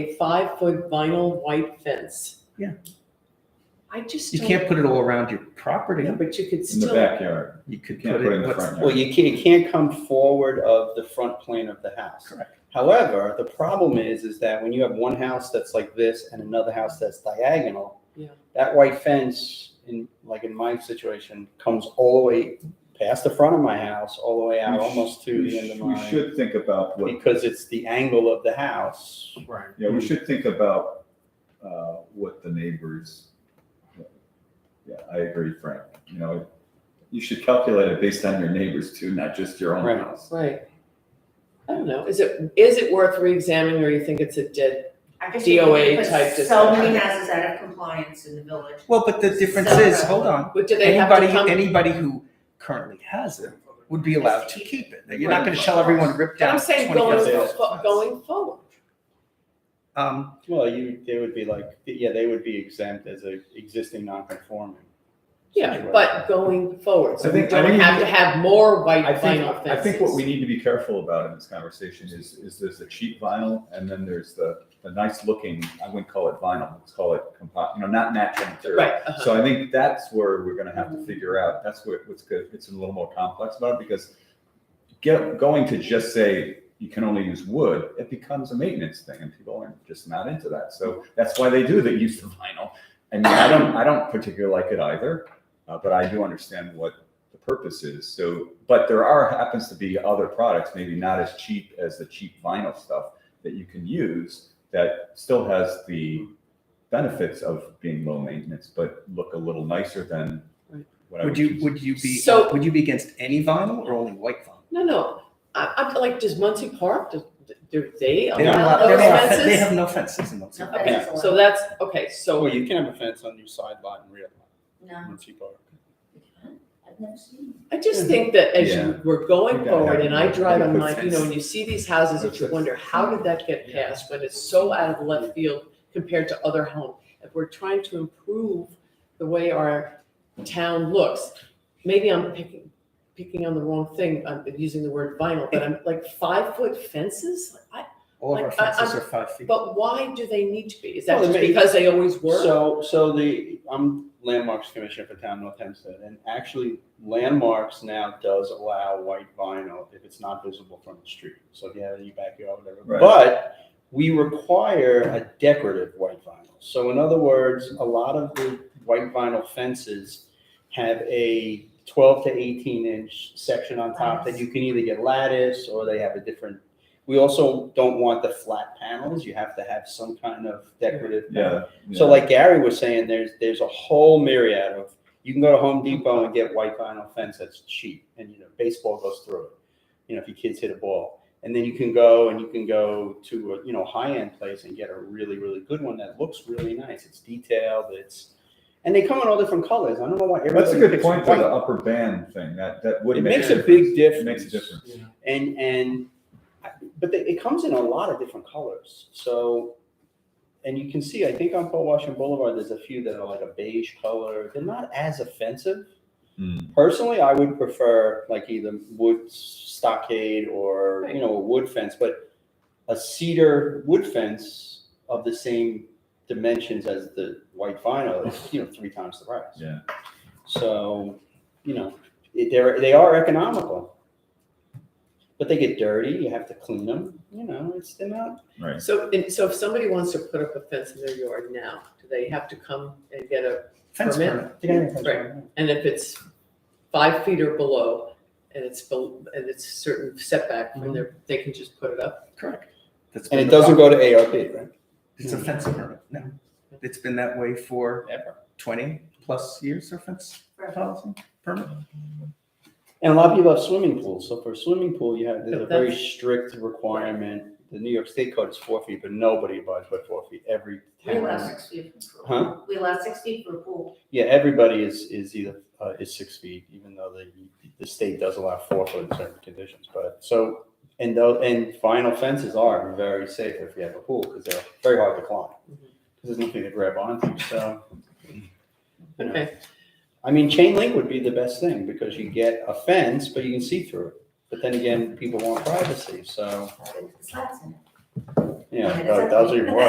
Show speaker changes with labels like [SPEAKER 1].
[SPEAKER 1] a five-foot vinyl white fence.
[SPEAKER 2] Yeah.
[SPEAKER 1] I just
[SPEAKER 2] You
[SPEAKER 1] don't.
[SPEAKER 2] can't put it all around your property.
[SPEAKER 1] Yeah, but you could
[SPEAKER 3] in the
[SPEAKER 1] still,
[SPEAKER 3] backyard.
[SPEAKER 2] You could
[SPEAKER 3] Can't
[SPEAKER 2] put
[SPEAKER 3] put it in
[SPEAKER 2] it,
[SPEAKER 3] the
[SPEAKER 2] what's,
[SPEAKER 3] front yard.
[SPEAKER 4] Well, you can't, you can't come forward of the front plane of the house.
[SPEAKER 2] Correct.
[SPEAKER 4] However, the problem is, is that when you have one house that's like this and another house that's diagonal,
[SPEAKER 1] Yeah.
[SPEAKER 4] that white fence, in, like in my situation, comes all the way past the front of my house, all the way out
[SPEAKER 3] We sh-
[SPEAKER 4] almost to
[SPEAKER 3] we
[SPEAKER 4] the end of
[SPEAKER 3] sh- We
[SPEAKER 4] mine.
[SPEAKER 3] should think about what,
[SPEAKER 4] Because it's the angle of the house.
[SPEAKER 1] right,
[SPEAKER 3] yeah, we should think about, uh, what the neighbors. Yeah, I agree, Frank, you know, you should calculate it based on your neighbors too, not just your own
[SPEAKER 4] Right.
[SPEAKER 3] house.
[SPEAKER 1] right. I don't know, is it, is it worth re-examining or you think it's a dead?
[SPEAKER 5] I just think we
[SPEAKER 1] DOA
[SPEAKER 5] put
[SPEAKER 1] type
[SPEAKER 5] So
[SPEAKER 1] discussion.
[SPEAKER 5] many houses out of compliance in the village.
[SPEAKER 2] well, but the difference
[SPEAKER 5] So-
[SPEAKER 2] is, hold on,
[SPEAKER 1] But do they have
[SPEAKER 2] anybody,
[SPEAKER 1] to come?
[SPEAKER 2] anybody who currently has it would be allowed to keep it. You're not
[SPEAKER 3] Right.
[SPEAKER 2] gonna tell everyone rip
[SPEAKER 1] But
[SPEAKER 2] down
[SPEAKER 1] I'm
[SPEAKER 2] twenty
[SPEAKER 1] saying
[SPEAKER 2] foot
[SPEAKER 1] going,
[SPEAKER 2] fence.
[SPEAKER 1] fo- going forward.
[SPEAKER 2] Um,
[SPEAKER 4] Well, you, they would be like, yeah, they would be exempt as a existing non-conforming.
[SPEAKER 1] Yeah, but going forward, so
[SPEAKER 3] I
[SPEAKER 1] we
[SPEAKER 3] think- I
[SPEAKER 1] don't
[SPEAKER 3] think-
[SPEAKER 1] have to have more white
[SPEAKER 3] I think,
[SPEAKER 1] vinyl
[SPEAKER 3] I
[SPEAKER 1] fences.
[SPEAKER 3] think what we need to be careful about in this conversation is, is there's the cheap vinyl and then there's the, the nice looking, I wouldn't call it vinyl, let's call it compo, you know, not natural material.
[SPEAKER 1] Right, uh-huh.
[SPEAKER 3] So I think that's where we're gonna have to figure out, that's what, what's good, it's a little more complex about it, because get, going to just say you can only use wood, it becomes a maintenance thing, and people are just not into that, so that's why they do, they use the vinyl. I mean, I don't, I don't particularly like it either, uh, but I do understand what the purpose is, so, but there are, happens to be other products, maybe not as cheap as the cheap vinyl stuff that you can use, that still has the benefits of being low maintenance, but look a little nicer than
[SPEAKER 1] Right.
[SPEAKER 3] what I would
[SPEAKER 2] would you,
[SPEAKER 3] choose.
[SPEAKER 2] would you be,
[SPEAKER 1] So-
[SPEAKER 2] would you be against any vinyl or only white vinyl?
[SPEAKER 1] No, no, I, I'm like, does Muncie Park, do, do they
[SPEAKER 2] They don't
[SPEAKER 1] allow
[SPEAKER 2] allow, they
[SPEAKER 1] those
[SPEAKER 2] don't allow fe- they
[SPEAKER 1] fences?
[SPEAKER 2] have no fences in those.
[SPEAKER 5] No
[SPEAKER 2] areas.
[SPEAKER 5] fences
[SPEAKER 1] So
[SPEAKER 5] allowed.
[SPEAKER 1] that's, okay,
[SPEAKER 4] So
[SPEAKER 1] so,
[SPEAKER 4] you can have a fence on your side lot and rear lot,
[SPEAKER 5] No,
[SPEAKER 4] once you park.
[SPEAKER 5] I've never seen.
[SPEAKER 1] I just think that as
[SPEAKER 3] Yeah.
[SPEAKER 1] you were going
[SPEAKER 3] You gotta
[SPEAKER 1] forward,
[SPEAKER 3] have-
[SPEAKER 1] and I drive
[SPEAKER 3] you
[SPEAKER 1] on
[SPEAKER 3] put
[SPEAKER 1] my, you know,
[SPEAKER 3] fence.
[SPEAKER 1] and you see these houses, that you
[SPEAKER 3] Put
[SPEAKER 1] wonder, how did that get
[SPEAKER 2] Yeah.
[SPEAKER 1] passed, when it's so out of left field compared to other homes? If we're trying to improve the way our town looks, maybe I'm picking, picking on the wrong thing, I'm using the word vinyl, but I'm like, five-foot fences? I,
[SPEAKER 2] All of our
[SPEAKER 1] Like, uh, I-
[SPEAKER 2] fences are five feet.
[SPEAKER 1] But why do they need to be? Is that
[SPEAKER 4] Well,
[SPEAKER 1] just
[SPEAKER 4] they-
[SPEAKER 1] because they always were?
[SPEAKER 4] So, so the, I'm landmarks commissioner for town North Hempstead, and actually landmarks now does allow white vinyl if it's not visible from the street. So if you have it in your backyard, whatever.
[SPEAKER 3] Right.
[SPEAKER 4] But we require a decorative white vinyl. So in other words, a lot of the white vinyl fences have a twelve to eighteen inch section on top that you can either get lattice or they have a different. We also don't want the flat panels. You have to have some kind of decorative.
[SPEAKER 3] Yeah.
[SPEAKER 4] So like Gary was saying, there's there's a whole myriad of you can go to Home Depot and get white vinyl fence that's cheap, and you know baseball goes through it. You know if your kids hit a ball, and then you can go and you can go to a you know high end place and get a really really good one that looks really nice. It's detailed. It's and they come in all different colors. I don't know why.
[SPEAKER 3] That's a
[SPEAKER 4] everybody
[SPEAKER 3] good
[SPEAKER 4] picks
[SPEAKER 3] point, though,
[SPEAKER 4] white.
[SPEAKER 3] the upper band thing, that, that would
[SPEAKER 4] It
[SPEAKER 3] make.
[SPEAKER 4] makes a big
[SPEAKER 3] It Makes a
[SPEAKER 4] difference.
[SPEAKER 3] difference.
[SPEAKER 4] and and but they, it comes in a lot of different colors so and you can see i think on Port washington boulevard there's a few that are like a beige color they're not as offensive
[SPEAKER 3] Hmm.
[SPEAKER 4] personally i would prefer like either wood stockade or you know a wood fence but a cedar wood fence of the same dimensions as the white vinyl is you know three times the price
[SPEAKER 3] Yeah.
[SPEAKER 4] so, you know, it- they're, they are economical. But they get dirty, you have to clean them, you know, it's, they're not,
[SPEAKER 3] Right.
[SPEAKER 1] So, and so if somebody wants to put up a fence in their yard now, do they have to come and get a,
[SPEAKER 2] Fence
[SPEAKER 1] permit.
[SPEAKER 2] permit.
[SPEAKER 1] Right. and if it's five feet or below, and it's, bel- and it's certain setback from their, they can just put it up?
[SPEAKER 2] Correct. That's
[SPEAKER 4] And
[SPEAKER 2] been
[SPEAKER 4] it
[SPEAKER 2] the
[SPEAKER 4] doesn't
[SPEAKER 2] problem.
[SPEAKER 4] go to ARB, right?
[SPEAKER 2] It's a fence permit, no. It's been that way for
[SPEAKER 4] Ever.
[SPEAKER 2] twenty plus years, our fence policy permit.
[SPEAKER 4] And a lot of people have swimming pools, so for a swimming pool, you have, there's a
[SPEAKER 1] But
[SPEAKER 4] very
[SPEAKER 1] that's-
[SPEAKER 4] strict requirement. The New York State code is four feet, but nobody abides by four feet, every
[SPEAKER 5] We allow
[SPEAKER 4] town.
[SPEAKER 5] six feet for a pool.
[SPEAKER 4] Huh?
[SPEAKER 5] We allow six feet for a pool.
[SPEAKER 4] Yeah, everybody is, is either, uh, is six feet, even though the, the state does allow four foot in certain conditions, but, so. And though, and vinyl fences are very safe if you have a pool, because they're very hard to climb. Because there's nothing to grab onto, so. you know.
[SPEAKER 1] Okay,
[SPEAKER 4] I mean, chain link would be the best thing, because you get a fence, but you can see through it. But then again, people want privacy, so,
[SPEAKER 5] It's slats in it.
[SPEAKER 4] you know, those are your words.